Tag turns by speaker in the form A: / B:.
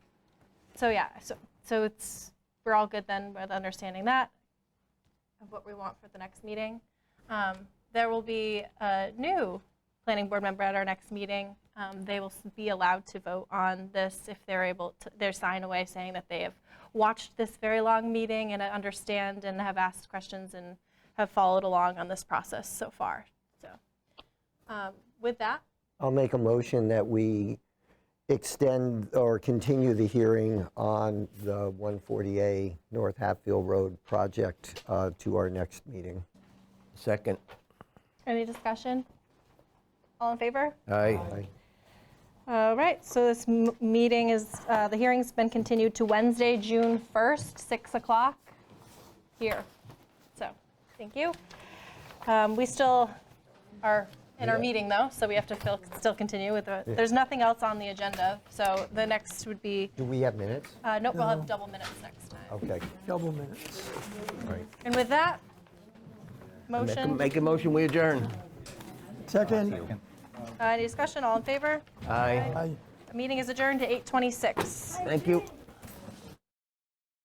A: So yeah, so, so it's, we're all good then with understanding that, of what we want for the next meeting. Um, There will be a new planning board member at our next meeting. Um, They will s- be allowed to vote on this if they're able to, their sign away saying that they have watched this very long meeting and understand and have asked questions and have followed along on this process so far. So um, with that,
B: I'll make a motion that we extend or continue the hearing on the 140A North Hatfield Road project uh, to our next meeting.
C: Second.
A: any discussion? All in favor?
C: Aye.
B: Aye.
A: All right, so this m- meeting is, uh, the hearing's been continued to Wednesday, June 1st, 6 o'clock here. So, thank you. Um, We still are in our meeting, though, so we have to fil- still continue with, the- there's nothing else on the agenda, so the next would be,
B: Do we have minutes?
A: uh, nope, we'll have double minutes next time.
B: Okay.
D: double minutes.
A: And with that,
C: Make a-
A: motion,
C: Make a motion, we adjourn.
D: Second,
A: uh, any discussion, all in favor?
C: Aye.
D: aye.
A: Meeting is adjourned to 8:26.
C: Thank you.